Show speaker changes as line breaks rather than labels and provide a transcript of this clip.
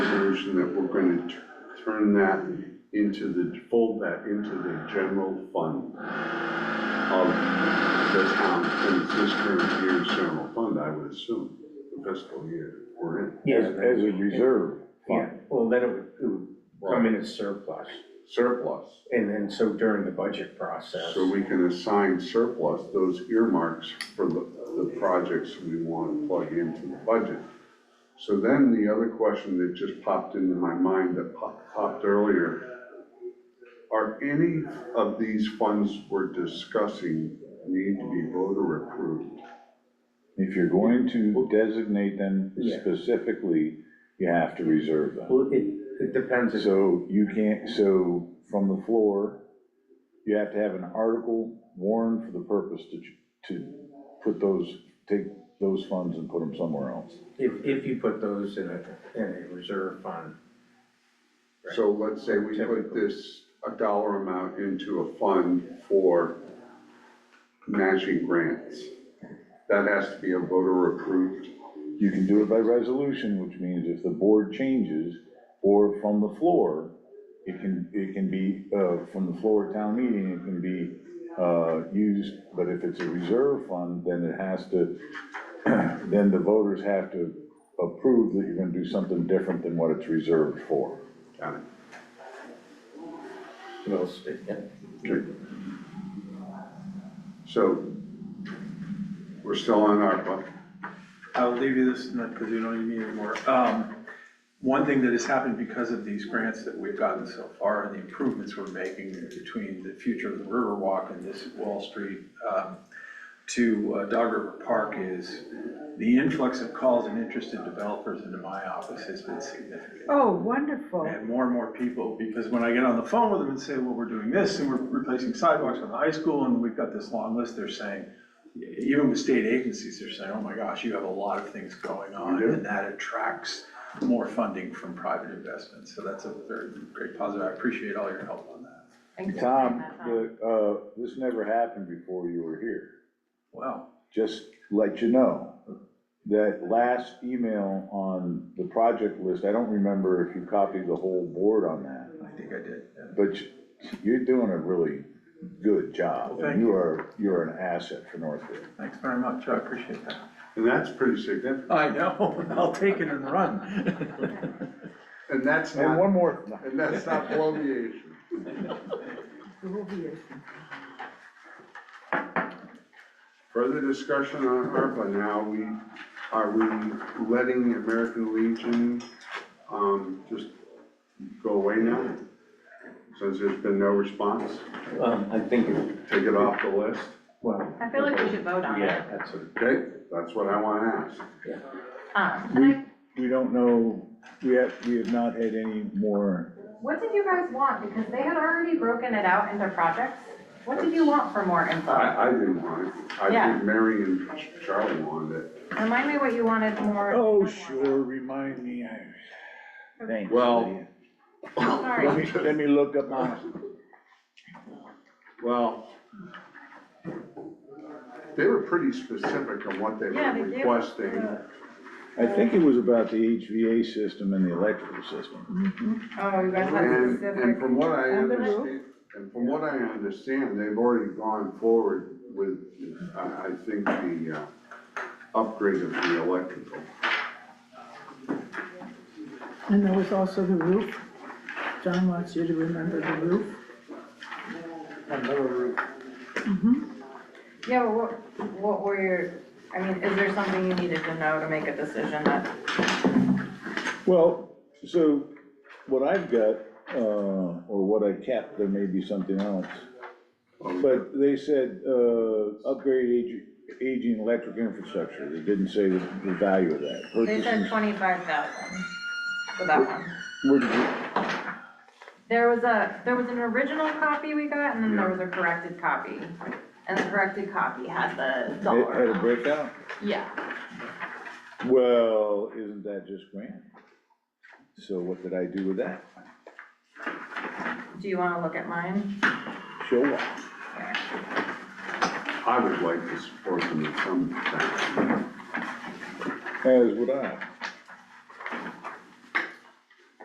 motion that we're going to turn that into the, fold that into the general fund of the town, and it's this current year's general fund, I would assume, the fiscal year we're in.
As, as a reserve
Yeah,
fund.
well, then it would, it would come in as surplus,
Surplus,
and then so during the budget process.
so we can assign surplus, those earmarks for the, the projects we want to plug into the budget. So then the other question that just popped into my mind that pop- popped earlier, are any of these funds we're discussing need to be voter approved?
If you're going to designate them
Yeah.
specifically, you have to reserve them.
Well, it, it depends, if-
So you can't, so from the floor, you have to have an article warned for the purpose to, to put those, take those funds and put them somewhere else.
if, if you put those in a, in a reserve fund,
So let's say we put
Typically.
this, a dollar amount into a fund for matching grants. That has to be a voter approved
You can do it by resolution, which means if the board changes or from the floor, it can, it can be, uh, from the floor at town meeting, it can be, uh, used, but if it's a reserve fund, then it has to, then the voters have to approve that you're gonna do something different than what it's reserved for.
Got it.
we'll see.
Okay. So, we're still on ARPA.
I'll leave you this, not because we don't need it anymore. Um, One thing that has happened because of these grants that we've gotten so far and the improvements we're making between the future of the Riverwalk and this Wall Street um, to uh, Dog River Park is the influx of calls and interested developers into my office has been significant.
Oh, wonderful.
And more and more people, because when I get on the phone with them and say, well, we're doing this, and we're replacing sidewalks on the high school, and we've got this long list, they're saying, even with state agencies, they're saying, oh my gosh, you have a lot of things going on,
You do.
and that attracts more funding from private investment, so that's a very great positive, I appreciate all your help on that.
Thanks for saying
Tom,
that, Tom.
the, uh, this never happened before you were here.
Wow,
just let you know, that last email on the project list, I don't remember if you copied the whole board on that,
I think I did, yeah.
but you're doing a really good job.
Well, thank
You are, you are an asset for Northfield.
thanks very much, I appreciate that.
And that's pretty significant.
I know, I'll take it and run.
And that's
And
not,
one more, no,
and that's not bloviation. Further discussion on ARPA now, we, are we letting American Legion, um, just go away now? Since there's been no response,
Um, I think, it-
take it off the list,
well,
I feel like we should vote on it.
yeah, that's what,
okay? That's what I wanna ask.
Um,
We-
and I,
we don't know, we have, we have not had any more,
what did you guys want? Because they had already broken it out into projects. What did you want for more info?
I, I didn't want it, I
Yeah.
think Mary and Charlie wanted it.
Remind me what you wanted more.
oh,
more.
sure, remind me, I, thanks.
Well-
Lydia. Let
Sorry,
me, let me look up my,
Well, they were pretty specific on what they
Yeah,
were
they gave us
requesting.
I think it was about the HVA system and the electrical system.
oh, you guys had
And, and
specific.
from what I
And the
understand, and from what I understand, they've already gone forward with, I, I think, the, uh, upgrade of the electrical.
And there was also the roof. John wants you to remember the roof.
Yeah, but what, what were your, I mean, is there something you needed to know to make a decision that,
Well, so what I've got, uh, or what I kept, there may be something else. But they said, uh, upgrade ag- aging electric infrastructure. They didn't say the the value of that.
they said
Purchasing-
twenty-five thousand for that one.
where did you-
There was a, there was an original copy we got, and then there was a corrected copy. And the corrected copy had
uh,
the
It had
dollar
a
amount.
breakout?
Yeah,
Well, isn't that just grand? So what did I do with that?
do you wanna look at mine?
Show off.
I would like to support them in some fashion.
As would I.